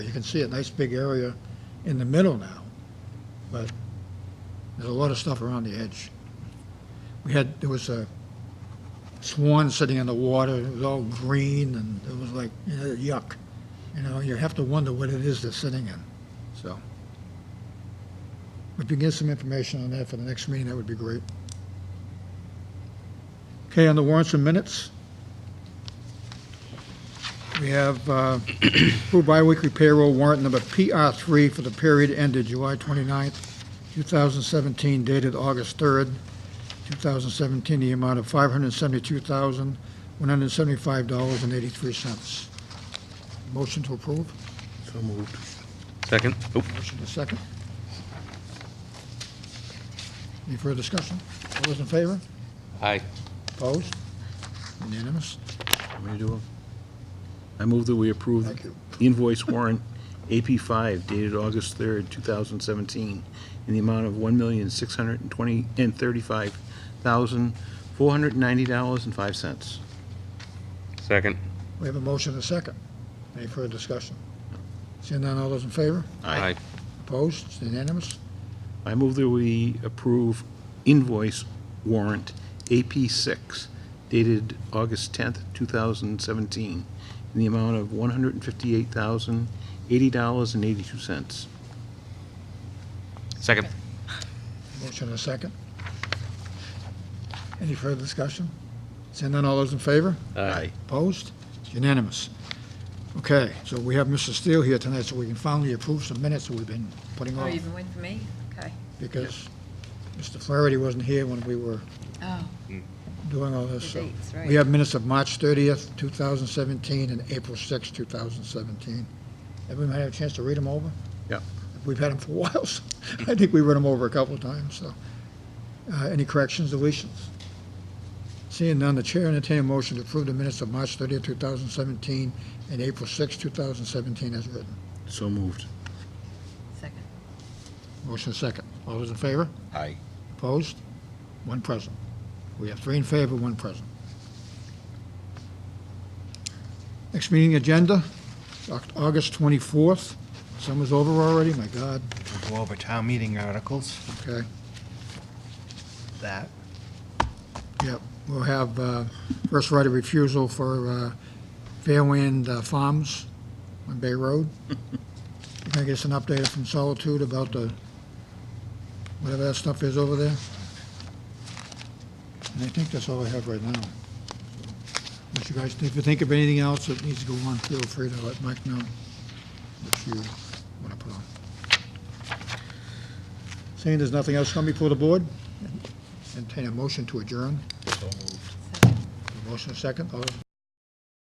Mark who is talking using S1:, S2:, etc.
S1: You can see a nice big area in the middle now, but there's a lot of stuff around the edge. We had, there was a swan sitting in the water, it was all green, and it was like, you know, yuck. You know, you have to wonder what it is they're sitting in, so. If you get some information on that for the next meeting, that would be great. Okay, on the warrants and minutes, we have uh, approved biweekly payroll warrant number PR3 for the period ended July 29th, 2017, dated August 3rd, 2017, the amount of $572,175.83. Motion to approve?
S2: So moved.
S3: Second? Oop.
S1: Motion to second. Any further discussion? All those in favor?
S3: Aye.
S1: Opposed? Unanimous?
S2: Want me to do them? I move that we approve
S1: Thank you.
S2: invoice warrant AP5 dated August 3rd, 2017, in the amount of $1,620, and $35,490.05.
S3: Second?
S1: We have a motion and a second. Any further discussion? Seeing none, all those in favor? Opposed? It's Unanimous?
S2: I move that we approve invoice warrant AP6 dated August 10th, 2017, in the amount of $158,080.82.
S3: Second?
S1: Motion and a second. Any further discussion? Seeing none, all those in favor? Opposed? It's Unanimous. Okay, so we have Mr. Steele here tonight, so we can finally approve some minutes that we've been putting
S4: Oh,
S1: off,
S4: you even went for me? Okay.
S1: because Mr. Flaherty wasn't here when we were
S4: Oh,
S1: doing all this,
S4: the
S1: so.
S4: dates, right.
S1: We have minutes of March 30th, 2017, and April 6th, 2017. Everyone had a chance to read them over?
S2: Yep.
S1: We've had them for a while, so I think we read them over a couple of times, so. Uh, Any corrections, deletions? Seeing none, the chair entertain a motion to approve the minutes of March 30th, 2017, and April 6th, 2017, as written.
S2: So moved.
S4: Second.
S1: Motion second. All those in favor?
S2: Aye.
S1: Opposed? One present. We have three in favor, one present. Next meeting agenda, Oct- August 24th. Summer's over already, my God,
S5: We'll go over town meeting articles,
S1: okay.
S5: that.
S1: Yep, we'll have uh, first right of refusal for uh, Fairwind uh, Farms on Bay Road. Can I get an update from Solitude about the, whatever that stuff is over there? And I think that's all I have right now. But you guys, if you think of anything else that needs to go on, feel free to let Mike know if you want to put on. Seeing there's nothing else coming before the board, entertain a motion to adjourn.
S4: Second.
S1: Motion second, all those in